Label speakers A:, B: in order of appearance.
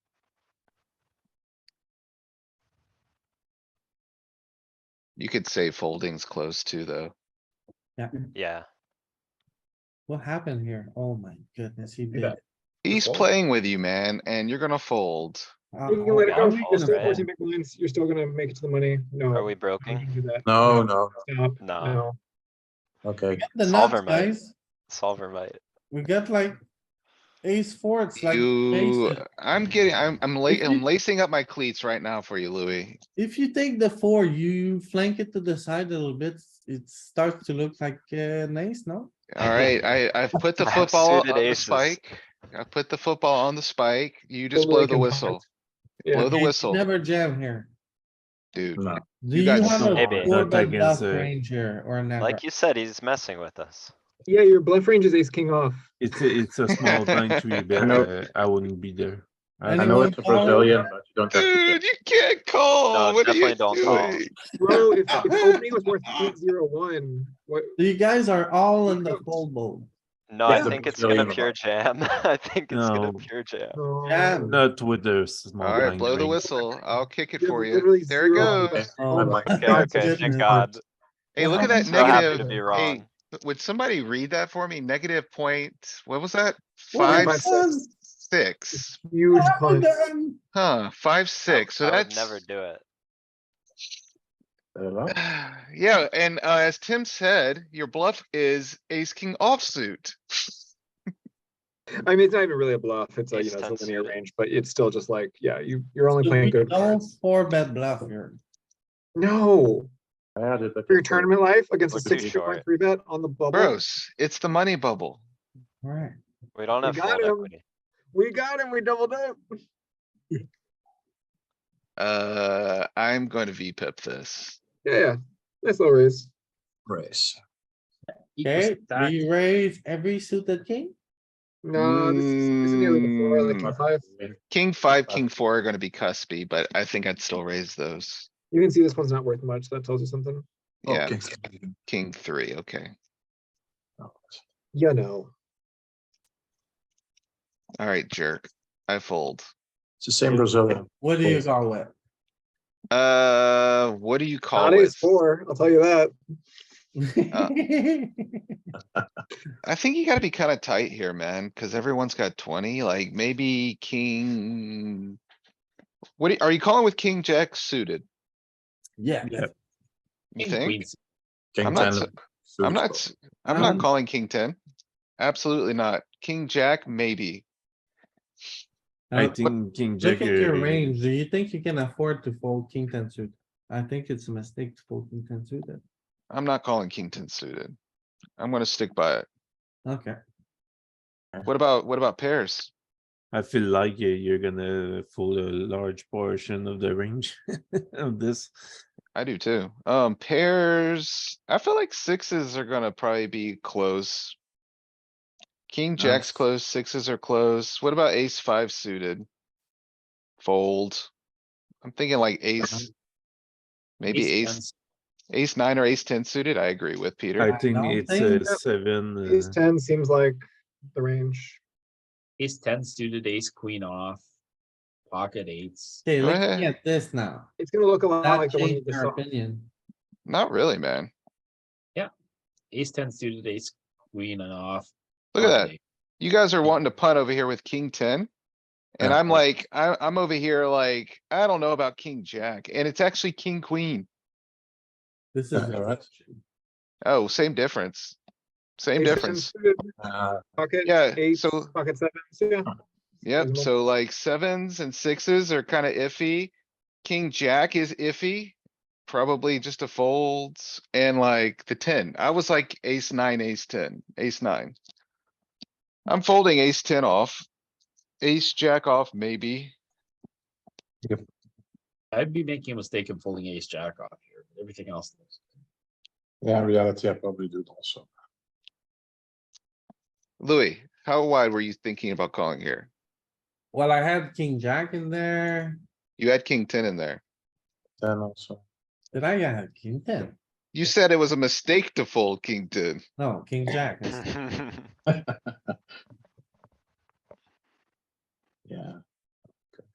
A: You could say folding's close too, though.
B: Yeah,
C: What happened here? Oh my goodness, he did.
D: Yeah.
A: He's
D: fold.
A: playing with you, man, and you're gonna fold.
C: Uh,
D: You can let it
C: how
D: go.
C: are
B: I'm
C: we
B: all
D: You're
C: gonna
D: still
B: red.
C: fold?
D: forcing big blinds. You're still gonna make it to the money. No.
B: are we
D: you
B: broken?
A: mm-hmm.
D: can do that.
E: No, no,
D: Stop.
B: No.
D: No.
E: okay.
C: Get The
B: Solver
C: nuts,
B: might.
C: guys.
B: Solver might.
C: We got like ace four, it's like.
A: You,
C: basic.
A: I'm getting, I'm, I'm
C: If
A: la- I'm
C: you-
A: lacing up my cleats right now for you, Louis.
C: If you take the four, you flank it to the side a little bit, it starts to look like uh, an ace, no?
A: Alright, I, I've put the
B: I have
A: football on
B: suited
A: the
B: aces.
A: spike. I put the football on the spike. You just
D: Totally
A: blow the
D: can
A: whistle,
D: punt. Yeah.
A: Blow the
C: Okay, you
A: whistle.
C: Never jam here.
A: dude.
E: No.
C: Do
A: You
C: you
A: guys
C: have
B: Maybe.
C: a four
E: Not
C: bet bluff
E: against the-
C: range here or never?
B: Like you said, he's messing with us.
D: Yeah, your bluff range is ace king off.
F: It's a, it's a small blind to be
E: I
F: bet.
E: know.
F: Uh, I wouldn't be there. I
E: I
F: think-
E: know it's a
C: Anyone
E: Brazilian, but you don't have to.
A: Dude, you can't call.
B: No,
A: What are you
B: definitely don't call.
A: doing?
D: Bro, if, if opening was worth eight zero one, what?
C: You guys are all in the fold boat.
B: No, I
E: Yeah.
B: think it's gonna
E: Brazilian.
B: pure jam. I think it's gonna
F: No.
B: pure jam.
D: no.
C: Jam.
F: Not with the small blind.
A: Alright, blow the
F: range.
A: whistle. I'll kick it
D: You have
A: for you.
D: literally
A: There it
D: zero
A: goes.
D: bets.
E: I might.
B: Okay,
C: my
B: okay, thank
C: goodness.
B: God.
A: Hey, look at that
B: So happy to
A: negative.
B: be
A: Hey,
B: wrong.
A: would somebody read that for me? Negative point, what was that?
C: What
A: Five,
D: Five,
C: happened?
A: six,
D: Huge
C: What happened
D: punch.
C: then?
A: huh, five, six, so
B: I would
A: that's.
B: Never do it.
E: Hello?
A: Yeah, and uh, as Tim said, your bluff is ace king offsuit.
D: I mean, it's not even really a bluff. It's a, you
B: Ace
D: know,
B: ten
D: it's a linear
B: suited.
D: range, but it's still just like, yeah, you, you're only
C: So
D: playing
C: we
D: good
C: Don't
D: cards.
C: four bet bluff here.
D: No,
E: I had it, but
D: for your
E: it's a-
D: tournament life against a
B: Look at
D: six
B: these
D: point three bet on the bubble.
A: Bros, it's the money bubble.
C: Alright,
B: We don't
D: We
B: have
D: got
B: fold
D: him.
B: equity.
D: We got him. We doubled up.
A: Uh, I'm going to VPip this.
D: Yeah, yeah. Nice little raise.
E: Raise.
C: okay, do you raise every suited king?
D: No, this is, this is nearly the floor, like
A: Mm.
D: my five.
A: King five,
E: Uh,
A: king four are gonna be cuspy, but I think I'd still raise those.
D: You can see this one's not worth much. That tells you something.
A: Yeah,
E: Okay.
A: king three, okay.
D: You know.
A: Alright, jerk. I fold.
E: It's the same Brazilian.
C: What do you
E: Fold.
C: go with?
A: Uh, what do you call
D: Not
A: it?
D: ace four, I'll tell you that. Uh,
A: I think you gotta be kinda tight here, man, cuz everyone's got twenty, like maybe king. What do- are you calling with king jack suited?
C: Yeah,
F: Yeah.
A: You think?
E: King
A: I'm not,
E: ten.
A: s-
E: suits
A: I'm not,
E: both.
A: s- I'm not
C: Um,
A: calling king ten. Absolutely not. King jack, maybe.
F: I
C: Now,
F: think King
C: Look
F: Jack.
C: at your
F: uh,
C: range. Do you think you can afford to fold king ten suited? I think it's a mistake to fold king ten suited.
A: I'm not calling king ten suited. I'm gonna stick by it.
C: Okay,
A: What about, what about pairs?
F: I feel like uh, you're gonna fold a large portion of the range of this.
A: I do too. Um, pairs, I feel like sixes are gonna probably be close. King, jack's
F: Nice.
A: close, sixes are close. What about ace five suited? Fold. I'm thinking like
F: Uh-huh.
A: ace. Maybe ace, ace nine or ace ten suited. I agree with
F: I
A: Peter.
F: think
C: don't
F: it's
C: think
F: a
D: that-
F: seven.
D: Ace
F: uh,
D: ten seems like the range.
G: Ace ten suited, ace queen off, pocket eights.
C: okay,
A: Go
C: looking
A: ahead.
C: at this now.
D: It's gonna look a lot
C: That
D: like the one you
C: changed
D: just
C: our
D: saw.
C: opinion.
A: Not really, man.
G: Ace ten suited, ace queen and off.
A: Look at
G: pocket
A: that.
G: eight.
A: You guys are wanting to punt over here with king ten. And
F: Yeah.
A: I'm like, I, I'm over here like, I don't know about king, jack, and it's actually king, queen.
C: This is.
E: Yeah, alright.
A: Oh, same difference. Same
D: Ace ten
A: difference.
D: suited,
E: Uh,
D: Pocket
A: Yeah,
D: eights,
A: so-
D: pocket sevens, yeah.
A: Yep,
D: Reasonable.
A: so like sevens and sixes are kinda iffy. King jack is iffy. Probably just a folds and like the ten. I was like ace nine, ace ten, ace nine. I'm folding ace ten off. Ace jack off, maybe.
G: I'd be making a mistake in folding ace jack off here, but everything else. looks-
E: yeah, in reality, I probably do it also.
A: Louis, how wide were you thinking about calling here?
C: Well, I had king jack in there.
A: You had king ten in there.
E: Ten also.
C: Did I have king ten?
A: You said it was a mistake to fold king ten.
C: No, king jack. I said.
B: I
E: Yeah.